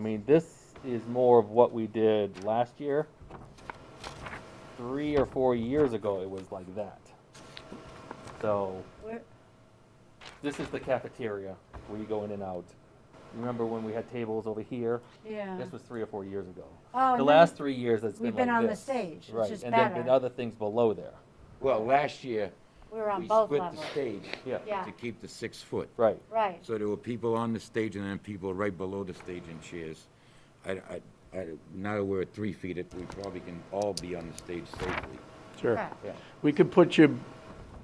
mean, this is more of what we did last year. Three or four years ago, it was like that. So Where, this is the cafeteria where you go in and out. Remember when we had tables over here? yeah. This was three or four years ago. Uh-huh. Oh, and The then last three years, it's been We've like been on the this. stage, which Right, is and then better. and other things below there. Well, last year, We were on we both split levels. the stage Yeah. Yeah, to keep the six foot. Right. right. So there were people on the stage and then people right below the stage in chairs. I, I, I, now that we're at three feet, it- we probably can all be on the stage safely. Sure. Correct. We could put you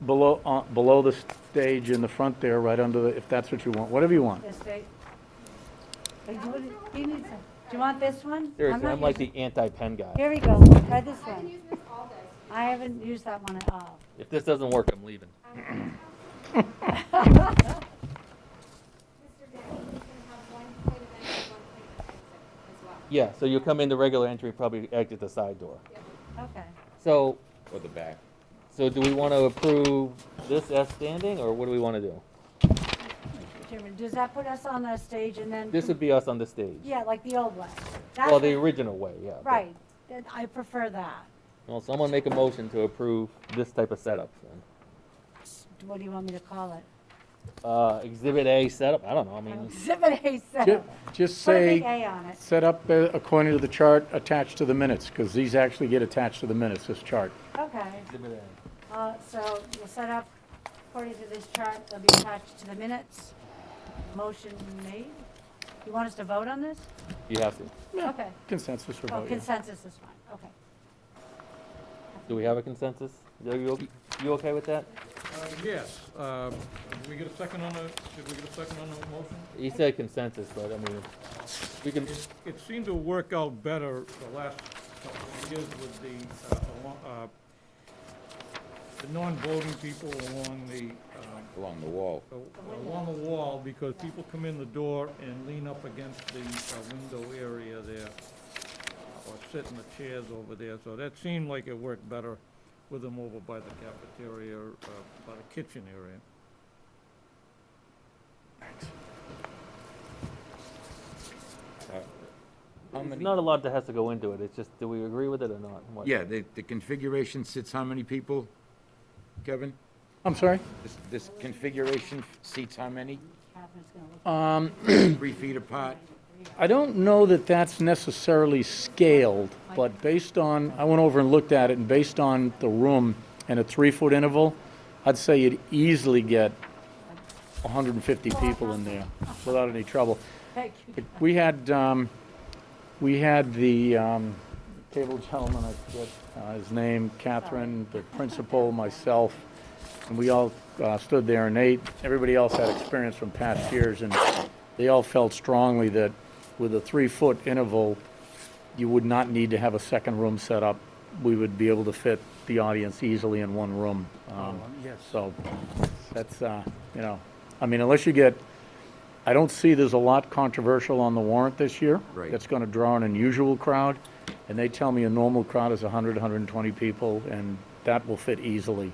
below, uh, below the stage in the front there, right under the, if that's what you want, whatever you want. This big. But you would- he needs a- do you want this one? Seriously, not I'm like using- the anti-pen guy. Here we go, we'll try this I've been one. using this all day. I haven't used that one at all. If this doesn't work, I'm leaving. Mr. Denny is gonna have one point of entry, one point of exit as well. Yeah, so you come in the regular entry, probably exit the side door. Okay. So, Or the back. so do we want to approve this as standing, or what do we want to do? Chairman, does that put us on the stage and then? This would be us on the stage. Yeah, like the old one. That's Well, the what- original way, yeah. but- Right, Then I prefer that. Well, someone make a motion to approve this type of setup. then. What do you want me to call it? Uh, exhibit A setup, I don't know, I Oh. mean, Exhibit A Ju- setup. Just Put a big say, A on it. set up uh, according to the chart attached to the minutes, because these actually get attached to the minutes, this chart. Okay. exhibit A. Uh, So we'll set up, according to this chart, they'll be attached to the minutes. Motion made. You want us to vote on this? You have to. Okay. Consensus or Oh, vote, yeah. consensus is fine, okay. Do we have a consensus? Are you, you okay with that? Uh, Yes, um, did we get a second on the, did we get a second on the motion? He said consensus, but I mean, we can, It- It seemed to work out better the last couple of years with the, uh, alo- uh, the non-voting people along the, um, Along the wall. a- along the wall, because people come in the door and lean up against the uh, window area there, uh, or sit in the chairs over there, so that seemed like it worked better with them over by the cafeteria, uh, by the kitchen area. How There's many? not a lot that has to go into it, it's just, do we agree with it or not? What- Yeah, the, the configuration sits how many people, Kevin? I'm sorry? This, this configuration seats how many? Catherine's going to look. Um, Three feet apart? I don't know that that's necessarily scaled, but based on, I went over and looked at it, and based on the room and a three-foot interval, I'd say you'd easily get 150 people in there without any trouble. Thank you. We had, um, we had the, um, table gentleman, I forget, uh, his name, Catherine, the principal, myself, and we all, uh, stood there and ate. Everybody else had experience from past years and they all felt strongly that with a three-foot interval, you would not need to have a second room set up. We would be able to fit the audience easily in one room. Um, So that's, uh, you know, I mean, unless you get, I don't see there's a lot controversial on the warrant this year. Right. That's going to draw an unusual crowd. And they tell me a normal crowd is 100, 120 people, and that will fit easily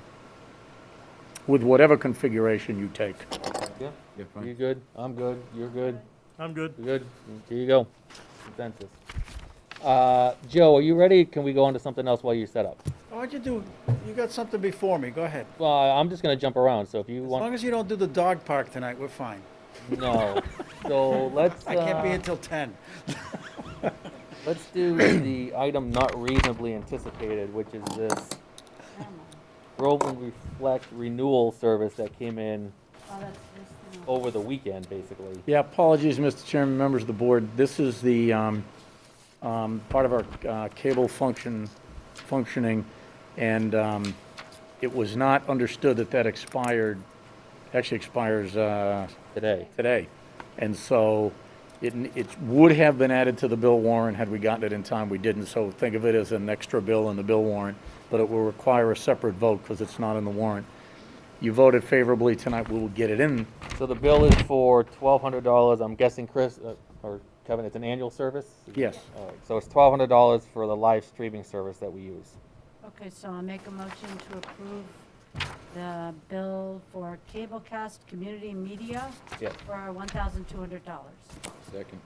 with whatever configuration you take. Yeah? Yeah, You fine. good? I'm good, you're good, I'm good. you're good, here you go, consensus. Uh, Joe, are you ready? Can we go on to something else while you set up? Why'd you do, you got something before me, go ahead. Well, I'm just gonna jump around, so if you As long want, as you don't do the dog park tonight, we're fine. no. So let's, I can't be uh, here till ten. let's do the item not reasonably anticipated, which is this Groveland Reflect renewal service that came in Oh, that's this thing. over the weekend, basically. Yeah, apologies, Mr. Chairman, members of the board. This is the, um, um, part of our, uh, cable function, functioning, and, um, it was not understood that that expired, actually expires, uh, Today. today. And so it, it would have been added to the bill warrant had we gotten it in time. We didn't, so think of it as an extra bill in the bill warrant, but it will require a separate vote because it's not in the warrant. You voted favorably tonight, we will get it in. So the bill is for twelve hundred dollars, I'm guessing Chris, uh, or Kevin, it's an annual service? Yes. All right, so it's twelve hundred dollars for the live streaming service that we use. Okay, so I'll make a motion to approve the bill for Cablecast Community Media Yes. for $1,200. Second.